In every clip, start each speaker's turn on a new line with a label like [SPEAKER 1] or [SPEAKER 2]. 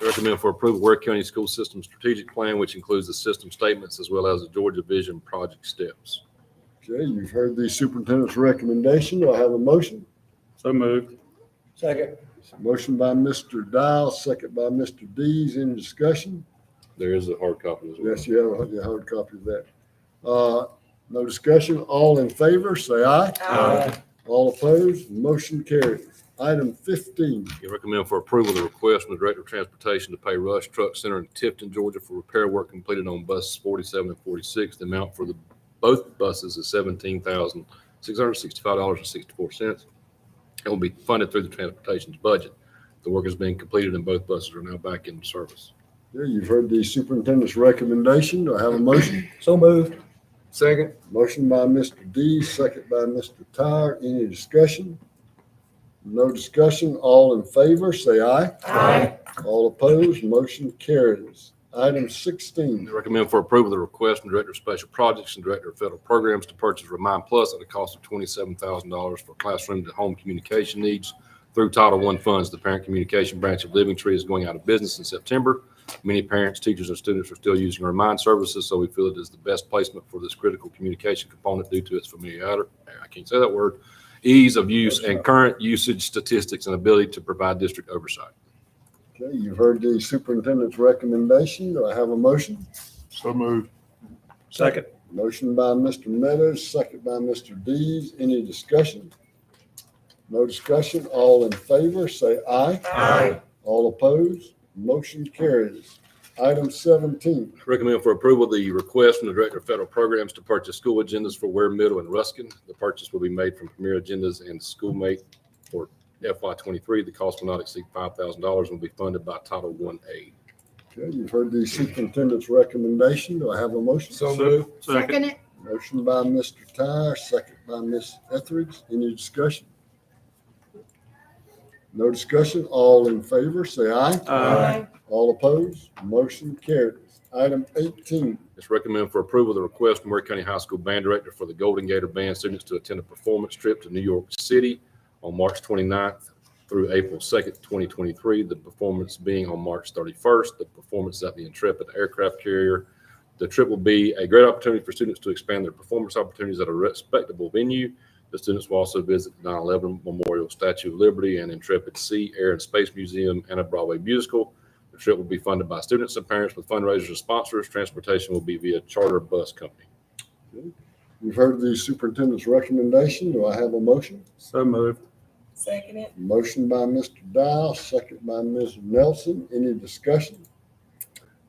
[SPEAKER 1] recommend for approval Ware County School System Strategic Plan, which includes the system statements as well as the Georgia Vision Project Steps.
[SPEAKER 2] Okay, you've heard the superintendent's recommendation. Do I have a motion?
[SPEAKER 3] So moved.
[SPEAKER 4] Second.
[SPEAKER 2] Motion by Mr. Dial, second by Mr. Dees. Any discussion?
[SPEAKER 1] There is a hard copy as well.
[SPEAKER 2] Yes, you have a hard copy of that. Uh, No discussion. All in favor, say aye.
[SPEAKER 4] Aye.
[SPEAKER 2] All opposed, motion carried. Item fifteen,
[SPEAKER 1] You recommend for approval the request from the Director of Transportation to pay Rush Truck Center in Tifton, Georgia for repair work completed on buses forty-seven and forty-six. The amount for the, both buses is seventeen thousand, six hundred sixty-five dollars and sixty-four cents. It will be funded through the transportation's budget. The work is being completed and both buses are now back in service.
[SPEAKER 2] Yeah, you've heard the superintendent's recommendation. Do I have a motion?
[SPEAKER 4] So moved.
[SPEAKER 3] Second.
[SPEAKER 2] Motion by Mr. Dees, second by Mr. Tyre. Any discussion? No discussion. All in favor, say aye.
[SPEAKER 4] Aye.
[SPEAKER 2] All opposed, motion carries. Item sixteen,
[SPEAKER 1] They Recommend for approval the request from Director of Special Projects and Director of Federal Programs to purchase Remind Plus at a cost of twenty-seven thousand dollars for classroom to home communication needs through Title I funds. The parent communication branch of Living Tree is going out of business in September. Many parents, teachers, and students are still using Remind services, so we feel it is the best placement for this critical communication component due to its familiarity, I can't say that word, ease of use and current usage statistics and ability to provide district oversight.
[SPEAKER 2] okay, you've heard the superintendent's recommendation. Do I have a motion?
[SPEAKER 3] So moved.
[SPEAKER 4] Second.
[SPEAKER 2] Motion by Mr. Meadows, second by Mr. Dees. Any discussion? No discussion. All in favor, say aye.
[SPEAKER 4] Aye.
[SPEAKER 2] All opposed, motion carries. Item seventeen,
[SPEAKER 1] Recommend for approval the request from the Director of Federal Programs to purchase school agendas for Ware Middle and Ruskin. The purchase will be made from Premier Agendas and Schoolmate for FY twenty-three. The cost will not exceed five thousand dollars and will be funded by Title One aid.
[SPEAKER 2] okay, you've heard the superintendent's recommendation. Do I have a motion?
[SPEAKER 3] moved. Second.
[SPEAKER 5] Second it.
[SPEAKER 2] Motion by Mr. Tyre, second by Ms. Etheridge. Any discussion? No discussion. All in favor, say aye.
[SPEAKER 3] Aye.
[SPEAKER 2] All opposed, motion carries. Item eighteen,
[SPEAKER 1] It's recommended for approval the request from Ware County High School Band Director for the Golden Gator Band students to attend a performance trip to New York City on March 29th through April 2nd, 2023, the performance being on March 31st. The performance is at the Intrepid Aircraft Carrier. The trip will be a great opportunity for students to expand their performance opportunities at a respectable venue. The students will also visit the 9/11 Memorial Statue of Liberty and Intrepid Sea, Air, and Space Museum and a Broadway musical. The trip will be funded by students and parents with fundraisers and sponsors. Transportation will be via charter bus company.
[SPEAKER 2] you've heard the superintendent's recommendation. Do I have a motion?
[SPEAKER 3] So moved.
[SPEAKER 5] Second it.
[SPEAKER 2] Motion by Mr. Dial, second by Ms. Nelson. Any discussion?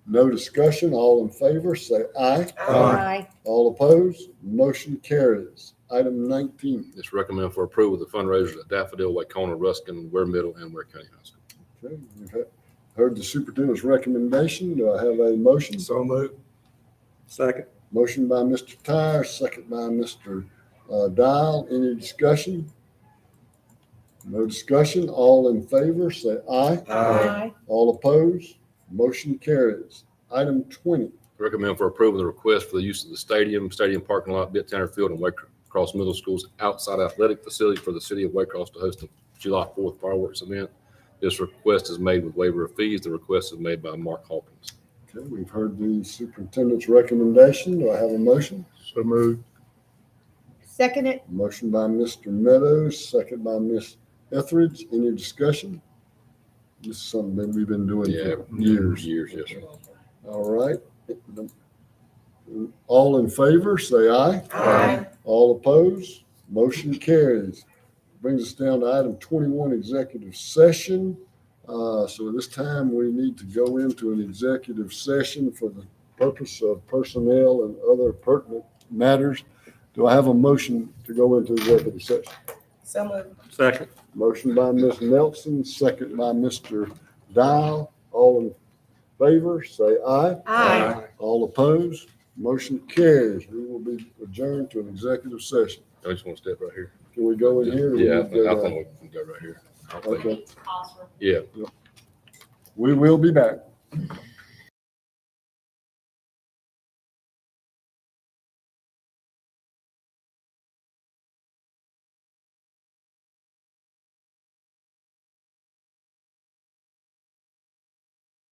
[SPEAKER 2] No discussion. All in favor, say aye.
[SPEAKER 5] Aye.
[SPEAKER 2] All opposed, motion carries. Item nineteen.
[SPEAKER 1] It's recommended for approval of the fundraisers at Daffodil, Wacona, Ruskin, Ware Middle, and Ware County High School.
[SPEAKER 2] Okay, you've he- Heard the superintendent's recommendation. Do I have a motion?
[SPEAKER 3] So moved. Second.
[SPEAKER 2] Motion by Mr. Tyre, second by Mr. uh, Dial. Any discussion? No discussion. All in favor, say aye.
[SPEAKER 5] Aye.
[SPEAKER 2] All opposed, motion carries. Item twenty.
[SPEAKER 1] Recommend for approval the request for the use of the stadium, stadium parking lot, Bit Tanner Field, and Waycross Middle School's outside athletic facility for the city of Waycross to host the July 4th fireworks event. This request is made with waiver of fees. The request is made by Mark Hawkins.
[SPEAKER 2] Okay, we've heard the superintendent's recommendation. Do I have a motion?
[SPEAKER 3] So moved.
[SPEAKER 5] Second it.
[SPEAKER 2] Motion by Mr. Meadows, second by Ms. Etheridge. Any discussion? This is something that we've been doing
[SPEAKER 1] Yeah,
[SPEAKER 2] for years.
[SPEAKER 1] Years, yes, sir.
[SPEAKER 2] All right. All in favor, say aye.
[SPEAKER 5] Aye.
[SPEAKER 2] All opposed, motion carries. Brings us down to item twenty-one, executive session. Uh, so at this time, we need to go into an executive session for the purpose of personnel and other pertinent matters. Do I have a motion to go into executive session?
[SPEAKER 5] So moved.
[SPEAKER 3] Second.
[SPEAKER 2] Motion by Ms. Nelson, second by Mr. Dial. All in favor, say aye.
[SPEAKER 5] Aye.
[SPEAKER 2] All opposed, motion carries. We will be adjourned to an executive session.
[SPEAKER 1] I just want to step right here.
[SPEAKER 2] Can we go in here? uh, or we
[SPEAKER 1] Yeah, I
[SPEAKER 2] need to
[SPEAKER 1] think I
[SPEAKER 2] go down?
[SPEAKER 1] think we can go right here. I don't think-
[SPEAKER 2] Okay,
[SPEAKER 1] Yeah.
[SPEAKER 2] we will be back.